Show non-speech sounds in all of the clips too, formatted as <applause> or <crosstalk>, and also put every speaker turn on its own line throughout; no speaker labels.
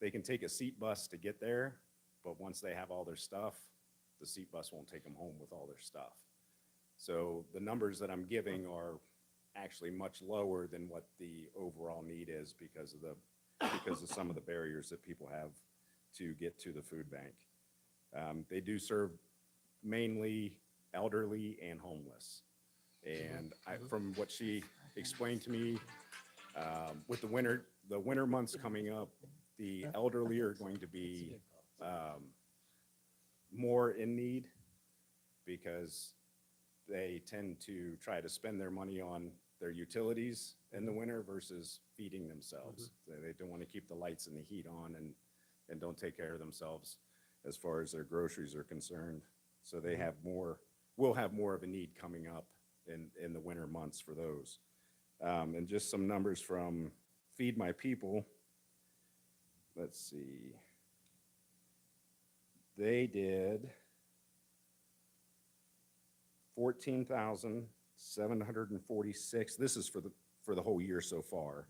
they can take a seat bus to get there, but once they have all their stuff, the seat bus won't take them home with all their stuff. So the numbers that I'm giving are actually much lower than what the overall need is because of the, because of some of the barriers that people have to get to the food bank. Um, they do serve mainly elderly and homeless. And I, from what she explained to me, um, with the winter, the winter months coming up, the elderly are going to be, um, more in need because they tend to try to spend their money on their utilities in the winter versus feeding themselves. They- They don't want to keep the lights and the heat on and, and don't take care of themselves as far as their groceries are concerned. So they have more, will have more of a need coming up in, in the winter months for those. Um, and just some numbers from Feed My People. Let's see. They did fourteen thousand seven hundred and forty-six. This is for the, for the whole year so far.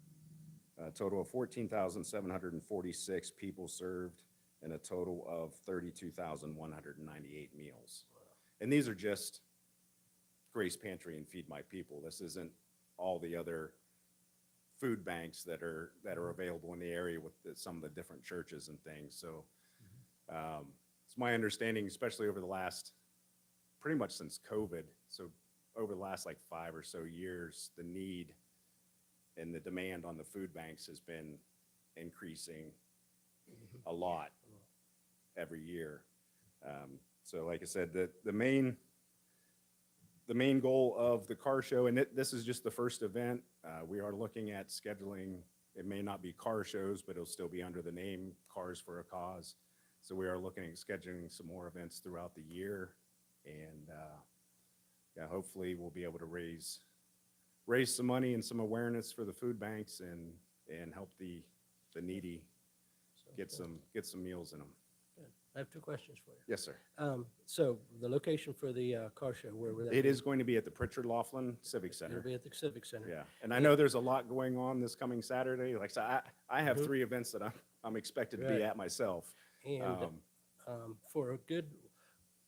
A total of fourteen thousand seven hundred and forty-six people served and a total of thirty-two thousand one hundred and ninety-eight meals. And these are just Grace Pantry and Feed My People. This isn't all the other food banks that are, that are available in the area with the- some of the different churches and things. So um, it's my understanding, especially over the last, pretty much since COVID, so over the last like five or so years, the need and the demand on the food banks has been increasing
Mm-hmm.
a lot every year. Um, So like I said, the, the main, the main goal of the car show, and it- this is just the first event, uh, we are looking at scheduling, it may not be car shows, but it'll still be under the name Cars for a Cause. So we are looking at scheduling some more events throughout the year. And, uh, yeah, hopefully we'll be able to raise, raise some money and some awareness for the food banks and, and help the, the needy get some, get some meals in them.
I have two questions for you.
Yes, sir.
Um, so the location for the, uh, car show, where would that be?
It is going to be at the Pritchard Laughlin Civic
It'll
Center.
be at the Civic Center.
Yeah, and I know there's a lot going on this coming Saturday. Like, so I, I have
Mhm.
three events that I'm, I'm expected to
Right.
be at myself.
And,
Um,
um, for a good,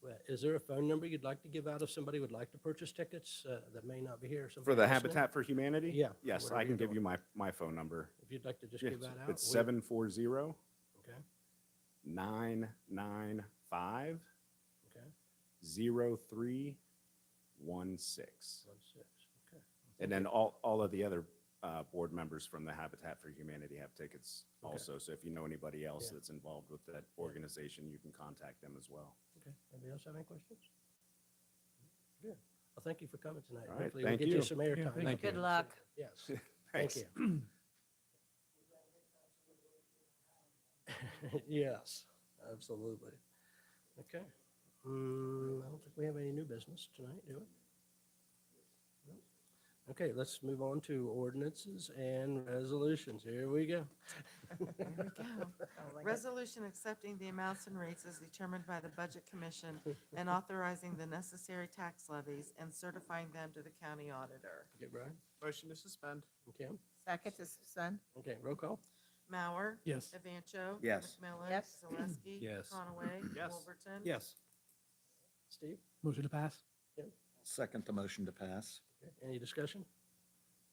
well, is there a phone number you'd like to give out if somebody would like to purchase tickets, uh, that may not be here?
For the
somebody listening?
Habitat for Humanity?
Yeah,
Yes,
whatever
I
you're
can give
doing.
you my, my phone number.
If you'd like to just
Yes,
give that out.
It's
we-
seven four zero
Okay,
nine nine five
okay,
zero three one six.
one six, okay.
And then all, all of the other, uh, board members from the Habitat for Humanity have tickets
Okay.
also. So if you know anybody else
Yeah.
that's involved with that organization, you can contact them as well.
Okay, anybody else have any questions? Good. Well, thank you for coming tonight.
All right,
Hopefully we
thank
get you
you.
some airtime.
thank Thank you. you.
Good luck. <laughs>
Yes, thank
Thanks.
you. <laughs> Yes, absolutely. Okay. Mm, I don't think we have any new business tonight, do we? Nope. Okay, let's move on to ordinances and resolutions. Here we go.
Resolution accepting the amounts and rates as determined by the Budget Commission and authorizing the necessary tax levies and certifying them to the county auditor.
Okay, Brian?
Motion to suspend.
Okay,
Second to suspend?
okay, roll call?
Mauer,
Yes.
Evancho.
Yes.
McMillan.
Yes.
Zaleski.
<clears throat> Yes.
Conaway.
Yes.
Wolverton.
Yes. Steve?
Motion to pass.
Second the motion to pass.
Okay, Any discussion?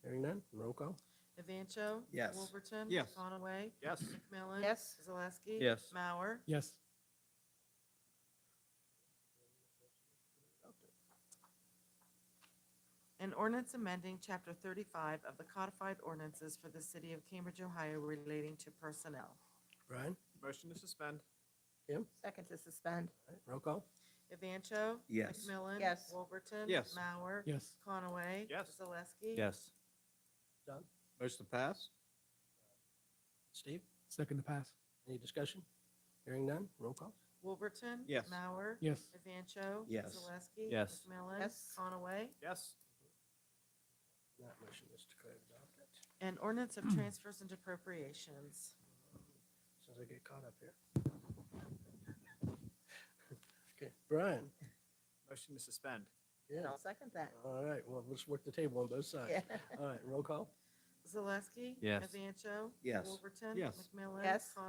Hearing none, roll call?
Evancho.
Yes.
Wolverton.
Yes.
Conaway.
Yes.
McMillan.
Yes.
Zaleski.
Yes.
Mauer.
Yes.
An ordinance amending Chapter 35 of the codified ordinances for the city of Cambridge, Ohio relating to personnel.
Brian?
Motion to suspend.
Second to suspend?
All right, Roll call?
Evancho.
Yes.
McMillan.
Yes.
Wolverton.
Yes.
Mauer.
Yes.
Conaway.
Yes.
Zaleski.
Yes.
Done?
Motion to pass?
Steve?
Second to pass.
Any discussion? Hearing none, roll call?
Wolverton.
Yes.
Mauer.
Yes.
Evancho.
Yes.
Zaleski.
Yes.
McMillan.
Yes.
Conaway.
Yes.
That motion is declared adopted.
An ordinance
Mm.
of transfers and appropriations.
Sounds like I get caught up here. <laughs> Okay, Brian?
Motion to suspend.
Yeah.
I'll second that.
All right, well, let's work the table on both sides. All right, roll call?
Zaleski.
Yes.
Evancho.
Yes.
Wolverton.
Yes.
McMillan.
Yes.